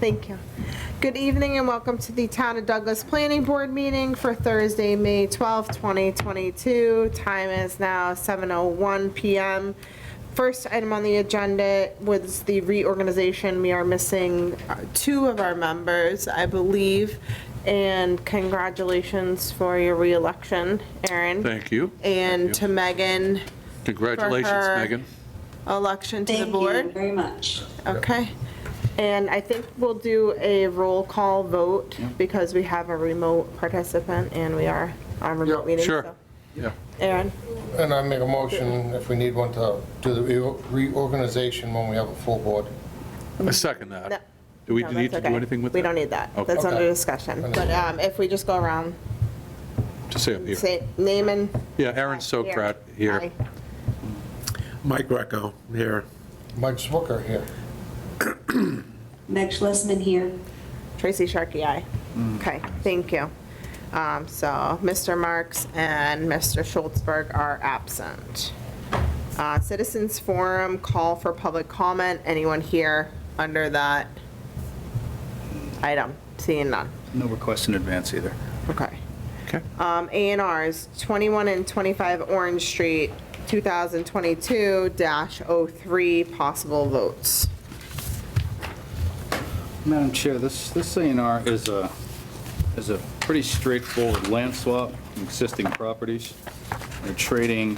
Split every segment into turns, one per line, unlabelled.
Thank you. Good evening and welcome to the Town of Douglas Planning Board meeting for Thursday, May 12, 2022. Time is now 7:01 PM. First item on the agenda was the reorganization. We are missing uh, two of our members, I believe, and congratulations for your reelection, Aaron.
Thank you.
And to Megan,
Congratulations,
her-
Megan.
election to the
Thank you
board.
very much.
Okay. And I think we'll do a roll call vote because we have a remote participant and we are on remote
Yeah.
meeting.
Sure.
so.
Yeah.
Aaron,
And I make a motion, if we need one, to do the re- reorganization when we have a full board.
I second
Mm-hmm. No.
that. Do we
No,
need to
that's
do
okay.
anything with that?
We don't need that.
Okay.
That's under
Okay.
discussion. But
Understood.
um, if we just go around,
Just say up here.
say, name and.
Yeah, Aaron Sokrat here.
Aye.
Mike Greco here.
Mike Swooker here.
Meg Schlesman here.
Tracy Sharkey, aye. Okay, thank you. Um, So Mr. Marks and Mr. Schultzberg are absent. Uh, Citizens Forum, call for public comment. Anyone here under that item? Seeing none.
No requests in advance either.
Okay.
Okay.
Um, A and Rs, 21 and 25 Orange Street, 2022-03, possible votes.
Madam Chair, this, this A and R is a, is a pretty straightforward land swap, from existing properties. They're trading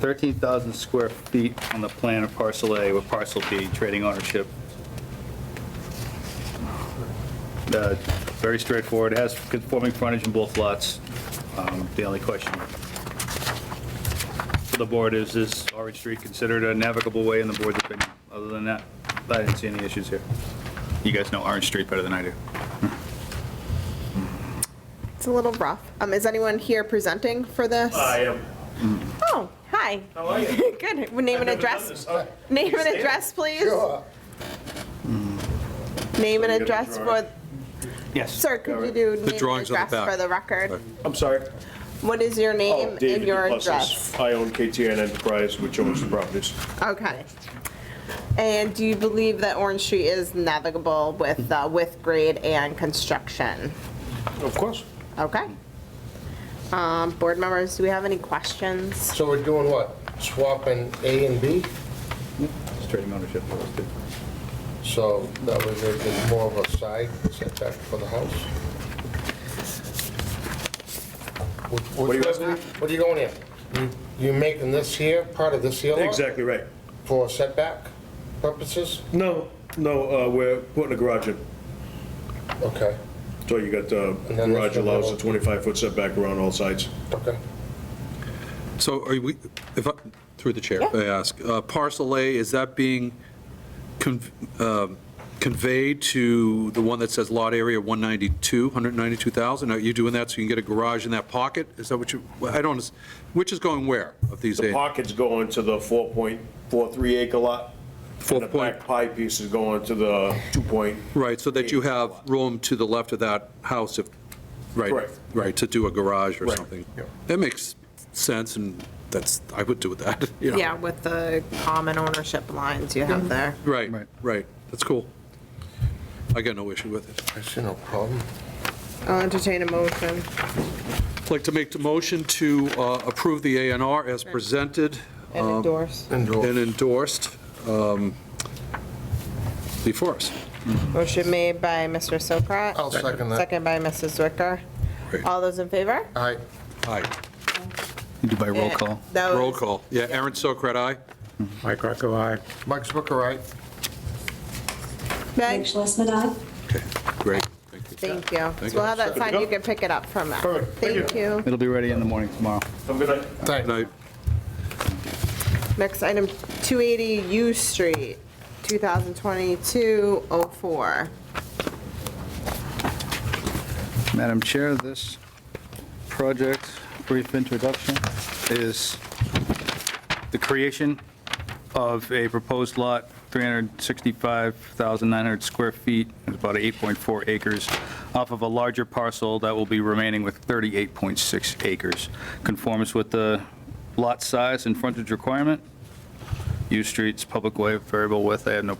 13,000 square feet on the plan of parcel A with parcel B, trading ownership. Uh, Very straightforward, It has conforming frontage in both lots. Um, The only question for the board is, is Orange Street considered a navigable way in the board's opinion? Other than that, I didn't see any issues here. You guys know Orange Street better than I do.
It's a little rough. Um, Is anyone here presenting for this?
I am.
Oh, hi.
How are you?
Good. Name and address. Name and address, please. Name and
Let me get a
address
drawing.
for,
Yes.
sir, could you do name and
drawings on the
address
back.
for the record?
I'm sorry. Oh,
What is your name and your address?
I own KTN Enterprise, which owns the properties.
Okay. And do you believe that Orange Street is navigable with, uh, with grade and construction?
Of course.
Okay. Um, Board members, do we have any questions?
So we're doing what? Swapping A and B?
It's trading ownership.
So that way there's been more of a side setback for the house? What- Hmm?
What do you asking me?
What are you going here? You- You making this here, part of this here lot?
Exactly right.
For setback purposes?
No, no, uh, we're putting a garage in.
Okay,
So you got, uh,
And then
garage
there's the
allows a
little-
25-foot setback around all sides.
okay.
So are we, if, I- through the chair,
Yeah.
if I ask, uh, parcel A, is that being con- um, conveyed to the one that says lot area 192, 192,000? Are you doing that so you can get a garage in that pocket? Is that what you, well, I don't, which is going where of these
The
eight?
pocket's going to the 4.43 acre lot.
Four
And the
point-
back pie piece is going to the 2 point.
Right, so that you have room to the left of that house if, right,
Correct.
right, to do a garage or
Right,
something.
yeah.
That makes sense, and that's, I would do that, you know.
Yeah, with the common ownership lines you have there.
Right,
Right.
right, that's cool. I got no issue with it.
I see no problem.
I'll entertain a motion.
I'd like to make the motion to uh, approve the ANR as presented
And endorse.
and endorsed um, before us.
Motion made by Mr. Sokrat.
I'll second that.
Second by Mrs. Zwicker.
Great.
All those in favor?
Aye.
Aye,
You do by roll call.
That was-
roll call. Yeah, Aaron Sokrat, aye.
Mike Greco, aye.
Mike Swicker, aye.
Meg
Meg,
Schlesman, aye.
Okay, great, thank you.
thank you. So
Thank
we'll have
you.
that signed, you can pick it up from Meg.
Perfect. Thank
Thank you.
It'll be ready in the morning tomorrow.
I'm gonna,
Good night.
Next item, 280 U Street, 2022-04.
Madam Chair, this project, brief introduction, is the creation of a proposed lot, 365,900 square feet, is about 8.4 acres, off of a larger parcel that will be remaining with 38.6 acres. Conforms with the lot size and frontage requirement. U Street's public way, variable width, I have no